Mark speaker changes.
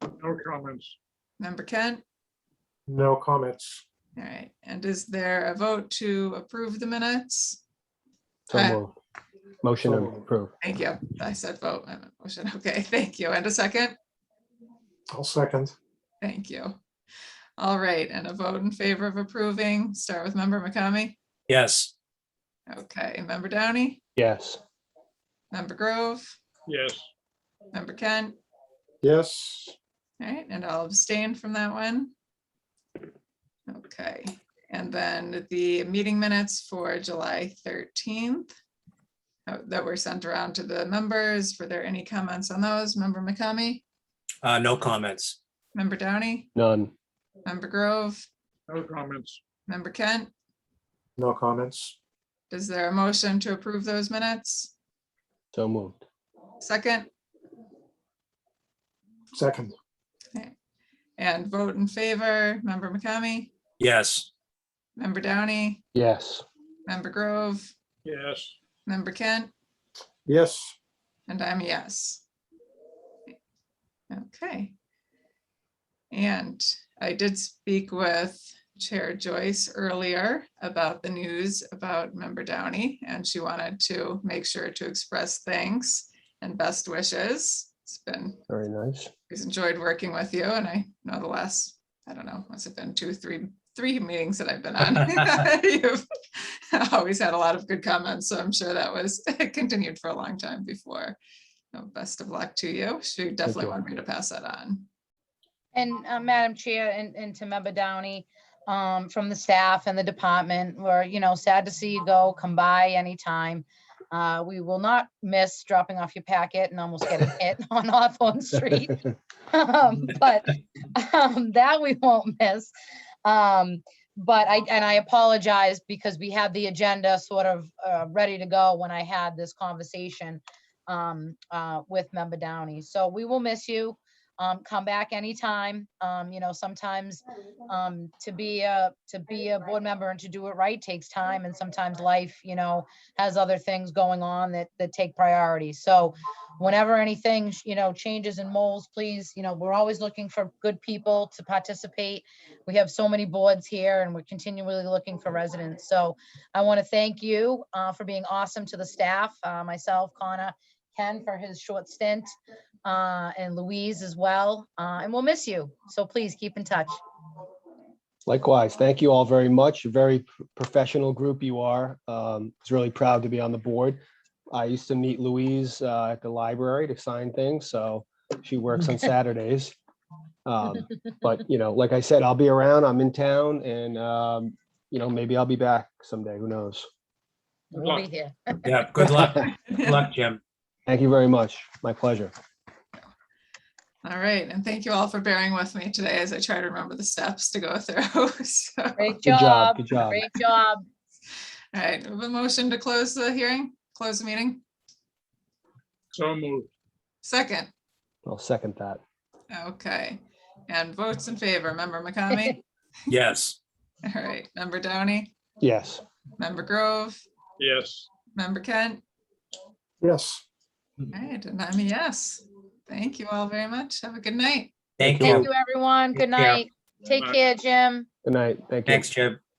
Speaker 1: No comments.
Speaker 2: Member Kent?
Speaker 3: No comments.
Speaker 2: All right. And is there a vote to approve the minutes?
Speaker 4: So
Speaker 2: Aye.
Speaker 4: moved. Motion
Speaker 3: So
Speaker 4: to
Speaker 3: moved.
Speaker 4: approve.
Speaker 2: Thank you. I said vote. I meant motion. Okay, thank you. And a second?
Speaker 3: I'll second.
Speaker 2: Thank you. All right, and a vote in favor of approving. Start with member McCamey.
Speaker 5: yes,
Speaker 2: Okay, member Downey,
Speaker 4: Yes,
Speaker 2: member Grove,
Speaker 1: Yes,
Speaker 2: member Kent.
Speaker 3: Yes,
Speaker 2: All right, and I'll abstain from that one. Okay, and then the meeting minutes for July 13th uh, that were sent around to the members. Were there any comments on those? Member McCamey,
Speaker 5: uh, no comments,
Speaker 2: member Downey,
Speaker 4: none.
Speaker 2: member Grove,
Speaker 1: no comments.
Speaker 2: member Kent.
Speaker 3: no comments.
Speaker 2: Is there a motion to approve those minutes?
Speaker 4: So moved.
Speaker 2: Second?
Speaker 3: Second,
Speaker 2: And vote in favor, member McCamey,
Speaker 5: yes,
Speaker 2: member Downey,
Speaker 4: Yes,
Speaker 2: member Grove,
Speaker 1: Yes,
Speaker 2: member Kent,
Speaker 3: yes,
Speaker 2: and I'm a yes. Okay. And I did speak with Chair Joyce earlier about the news about member Downey, and she wanted to make sure to express thanks and best wishes. It's been
Speaker 4: very nice.
Speaker 2: Always enjoyed working with you and I know the last, I don't know, must have been two, three, three meetings that I've been on. You've Always had a lot of good comments, so I'm sure that was continued for a long time before. So Best of luck to you. She definitely
Speaker 4: you.
Speaker 2: wanted me to pass that on.
Speaker 6: And uh, Madam Chair and, and to Member Downey, um, from the staff and the department, we're, you know, sad to see you go, come by anytime. Uh, we will not miss dropping off your packet and almost getting hit on Hawthorne Street. Um, But um, that we won't miss. Um, But I, and I apologize because we had the agenda sort of uh, ready to go when I had this conversation um, uh, with Member Downey. So we will miss you um, come back anytime. Um, you know, sometimes, um, to be a, to be a board member and to do it right takes time and sometimes life, you know, has other things going on that, that take priority. So whenever anything, sh- you know, changes and molds, please, you know, we're always looking for good people to participate. We have so many boards here and we're continually looking for residents. So I want to thank you, uh, for being awesome to the staff, uh, myself, Connor, Ken for his short stint uh, and Louise as well. Uh, and we'll miss you. So please keep in touch.
Speaker 4: Likewise, thank you all very much. Very p- professional group you are. Um, was really proud to be on the board. I used to meet Louise uh, at the library to sign things, so she works on Saturdays. Um, but you know, like I said, I'll be around. I'm in town, and um, you know, maybe I'll be back someday. Who knows?
Speaker 1: Good
Speaker 6: We'll
Speaker 1: luck.
Speaker 6: be here.
Speaker 5: yeah, good luck, good luck, Jim.
Speaker 4: Thank you very much. My pleasure.
Speaker 2: All right, and thank you all for bearing with me today as I try to remember the steps to go through. So, all
Speaker 6: Great
Speaker 4: Good
Speaker 6: job.
Speaker 4: job. Good job.
Speaker 6: Great job.
Speaker 2: right, we have a motion to close the hearing, close the meeting.
Speaker 1: so moved.
Speaker 2: Second,
Speaker 4: I'll second that.
Speaker 2: okay. And votes in favor, member McCamey,
Speaker 5: Yes,
Speaker 2: all right, member Downey.
Speaker 4: Yes.
Speaker 2: Member Grove,
Speaker 1: Yes.
Speaker 2: Member Kent,
Speaker 3: yes.
Speaker 2: all right, and I'm a yes. Thank you all very much. Have a good night.
Speaker 5: thank
Speaker 6: Thank
Speaker 5: you,
Speaker 6: you, everyone. Good
Speaker 5: Take care.
Speaker 6: night. Take
Speaker 1: Bye.
Speaker 6: care, Jim.
Speaker 4: Good night. Thank you.
Speaker 5: thanks, Jim.